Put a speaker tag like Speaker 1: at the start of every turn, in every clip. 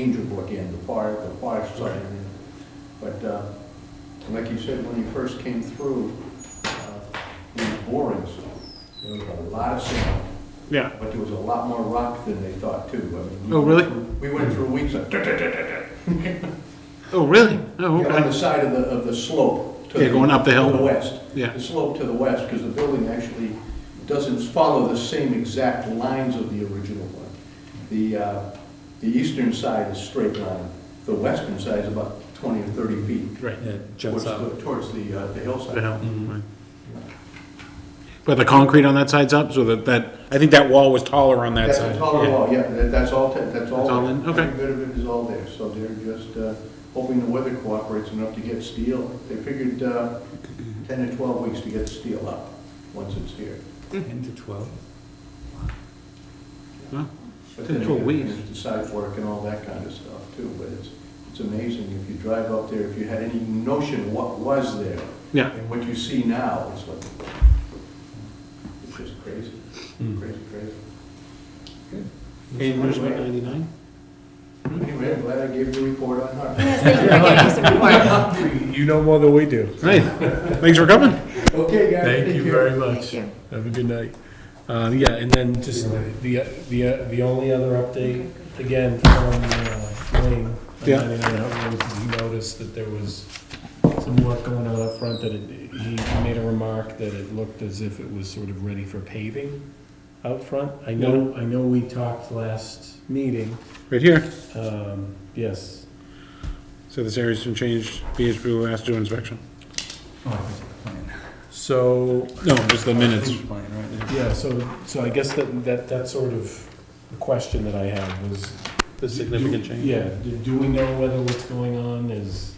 Speaker 1: Angel Book in, the far, the far side. But uh, like you said, when you first came through, uh, these borings, there was a lot of sand,
Speaker 2: Yeah.
Speaker 1: but there was a lot more rock than they thought too. I mean, we
Speaker 2: Oh, really?
Speaker 1: went through- We went through weeks of,
Speaker 2: Oh, really? Oh,
Speaker 1: Yeah, on the
Speaker 2: okay.
Speaker 1: side of the, of the slope. to
Speaker 2: Yeah, going up the hill.
Speaker 1: To the west.
Speaker 2: Yeah.
Speaker 1: The slope to the west, because the building actually doesn't follow the same exact lines of the original one. The, uh, the eastern side is straight line, the western side is about twenty or thirty feet.
Speaker 2: Right.
Speaker 3: Yeah,
Speaker 1: Towards
Speaker 3: jumps
Speaker 1: the,
Speaker 3: up.
Speaker 1: towards the, uh, the hillside.
Speaker 2: The hill, right. Mm-hmm. But the concrete on that side's up, so that, that, I think that wall was taller on that
Speaker 1: That's
Speaker 2: side.
Speaker 1: a taller
Speaker 2: Yeah.
Speaker 1: wall, yeah, that- that's all, te- that's all.
Speaker 2: That's all in, okay.
Speaker 1: Every bit of it is all there, so they're just uh, hoping the weather cooperates enough to get steel. They figured uh, 10 to 12 weeks to get steel up, once it's here.
Speaker 3: Ten to twelve.
Speaker 2: Well,
Speaker 1: But
Speaker 2: 10 to
Speaker 1: then
Speaker 2: 12
Speaker 1: again,
Speaker 2: weeks.
Speaker 1: there's The side work and all that kind of stuff too, but it's, it's amazing if you drive up there, if you had any notion what was there
Speaker 2: Yeah,
Speaker 1: and what you see now, it's like, it's just crazy, crazy, crazy.
Speaker 2: and where's Route ninety-nine?
Speaker 1: Anyway, I'm glad I gave the report on Harvard.
Speaker 4: Yes, thank you for giving us a report.
Speaker 5: You know more than we do.
Speaker 2: Hey, thanks for coming.
Speaker 1: Okay, guys.
Speaker 5: Thank
Speaker 1: take
Speaker 5: you
Speaker 1: care.
Speaker 5: very
Speaker 4: Thank
Speaker 5: much.
Speaker 4: you.
Speaker 5: Have a good night. Uh, yeah, and then just the, the, the only other update, again, from uh, Wayne. on
Speaker 2: Yeah.
Speaker 5: 99 Hut Road, He noticed that there was some work going on up front, that it, he made a remark that it looked as if it was sort of ready for paving out front. I know, I know we talked last meeting,
Speaker 2: Right here.
Speaker 5: um, yes.
Speaker 2: So this area's been changed, VHB will ask to do inspection.
Speaker 3: Oh,
Speaker 5: So,
Speaker 2: No, just the minutes.
Speaker 5: Yeah, so, so I guess that, that, that sort of the question that I had was.
Speaker 2: The significant change.
Speaker 5: Yeah, do- do we know whether what's going on is,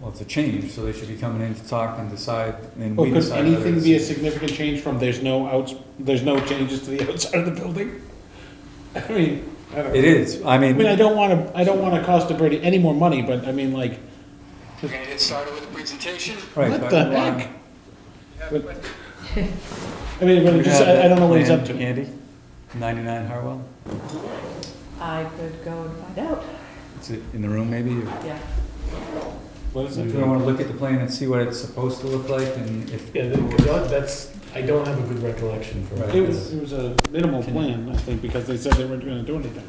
Speaker 3: Well, it's a change, so they should be coming in to talk and decide, and
Speaker 2: Well,
Speaker 3: we
Speaker 2: Oh, could
Speaker 3: decide whether
Speaker 2: anything be a
Speaker 3: it's.
Speaker 2: significant change from there's no outs, there's no changes to the outside of the building? I mean, I don't know.
Speaker 3: It is, I
Speaker 2: I mean, I
Speaker 3: mean,
Speaker 2: don't wanna, I don't wanna cost a birdie any more money, but I mean, like,
Speaker 6: We're gonna get started with the presentation.
Speaker 3: right.
Speaker 2: what
Speaker 3: but-
Speaker 2: the heck?
Speaker 6: But
Speaker 2: I mean, but
Speaker 3: You
Speaker 2: it just,
Speaker 3: have
Speaker 2: I, I don't know what he's
Speaker 3: that
Speaker 2: up
Speaker 3: plan,
Speaker 2: to.
Speaker 3: Andy, ninety-nine Hartwell,
Speaker 4: I could go and find out,
Speaker 3: it's in the room maybe, or-
Speaker 4: yeah.
Speaker 5: what is
Speaker 3: so
Speaker 5: it?
Speaker 3: if you wanna look at the plan and see what it's supposed to look like, and if.
Speaker 5: Yeah, that- that's, I don't have a good recollection for
Speaker 3: Right.
Speaker 2: It was, it was a minimal plan, I think, because they said they weren't gonna do anything.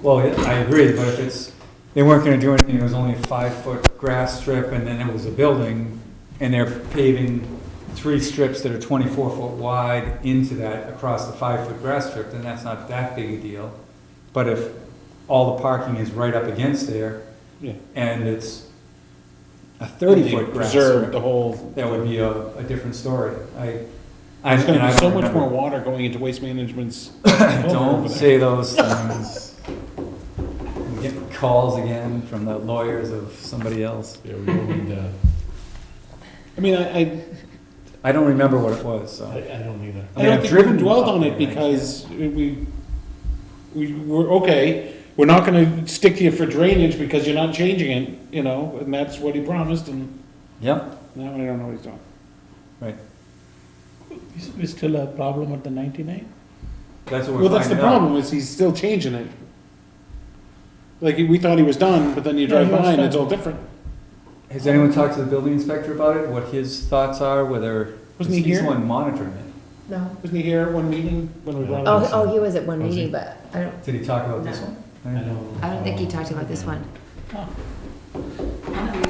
Speaker 3: Well, yeah, I agree, but if it's, they weren't gonna do anything, it was only a five-foot grass strip, and then it was a building, and they're paving three strips that are twenty-four foot wide into that, across the five-foot grass strip, then that's not that big a deal. But if all the parking is right up against there,
Speaker 2: Yeah.
Speaker 3: and it's a thirty-foot
Speaker 2: They
Speaker 3: grass
Speaker 2: Preserved
Speaker 3: strip,
Speaker 2: the whole,
Speaker 3: that would be a, a different story. I, I,
Speaker 2: there's
Speaker 3: and
Speaker 2: gonna
Speaker 3: I
Speaker 2: be so
Speaker 3: don't
Speaker 2: much more
Speaker 3: remember.
Speaker 2: water going into waste management's.
Speaker 3: Don't say those things. I'm Getting calls again from the lawyers of somebody else.
Speaker 5: Yeah, we don't need, uh,
Speaker 2: I mean, I, I,
Speaker 3: I don't remember what it was, so.
Speaker 5: I, I don't either.
Speaker 3: I
Speaker 2: I don't
Speaker 3: mean, I've
Speaker 2: think we
Speaker 3: driven
Speaker 2: dwelled
Speaker 3: up
Speaker 2: on
Speaker 3: there,
Speaker 2: it
Speaker 3: and I
Speaker 2: because we, we were, okay, we're not gonna stick to you for drainage because you're not changing it, you know, and that's what he promised, and
Speaker 3: Yep,
Speaker 2: now I don't know what he's doing.
Speaker 3: right.
Speaker 7: Is is still a problem at the 99?
Speaker 3: That's what
Speaker 2: Well,
Speaker 3: we're
Speaker 2: that's the
Speaker 3: finding out.
Speaker 2: problem, is he's still changing it. Like, we thought he was done, but then you
Speaker 7: No,
Speaker 2: drive
Speaker 7: he was
Speaker 2: by and
Speaker 7: done.
Speaker 2: it's all different.
Speaker 3: Has anyone talked to the building inspector about it? What his thoughts are, whether?
Speaker 2: Wasn't he
Speaker 3: He's
Speaker 2: here?
Speaker 3: the one monitoring it.
Speaker 4: No.
Speaker 2: Wasn't he here at one meeting when we brought it
Speaker 4: Oh,
Speaker 2: up?
Speaker 4: oh, he was at one
Speaker 5: Was he?
Speaker 4: meeting, but I don't,
Speaker 3: Did he talk about this
Speaker 4: No.
Speaker 3: one?
Speaker 5: I don't.
Speaker 4: I don't think he talked about this one.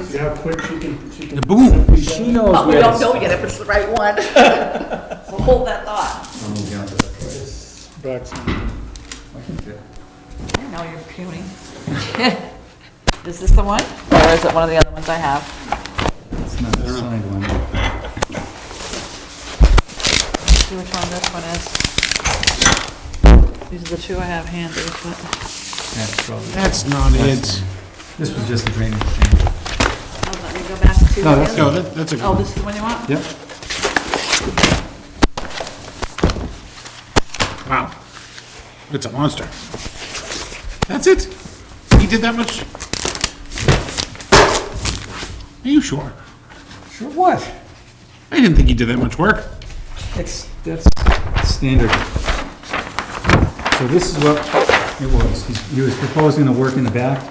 Speaker 5: See how quick she can, she can.
Speaker 3: Boom, she knows
Speaker 4: But Oh, we
Speaker 3: where
Speaker 4: don't know
Speaker 3: to.
Speaker 4: yet if it's the right one. We'll Hold that thought.
Speaker 3: I'm moving on to that. I can do it.
Speaker 4: Now you're puning. Is this the one, or is it one of the other ones I have?
Speaker 3: It's not the signed one.
Speaker 8: See which one this one is. These are the two I have handy, but
Speaker 3: That's probably-
Speaker 2: That's not it.
Speaker 3: This was just a drainage change.
Speaker 8: I'll let me go back to.
Speaker 3: No, that's-
Speaker 8: the
Speaker 2: No,
Speaker 8: other-
Speaker 2: that, that's a
Speaker 8: Oh, this is the one you want?
Speaker 3: Yep.
Speaker 2: Wow. It's a monster. That's it? He did that much? Are you sure?
Speaker 3: Sure what?
Speaker 2: I didn't think he did that much work.
Speaker 3: It's, that's standard. So this is what It was. He- He was proposing the work in the back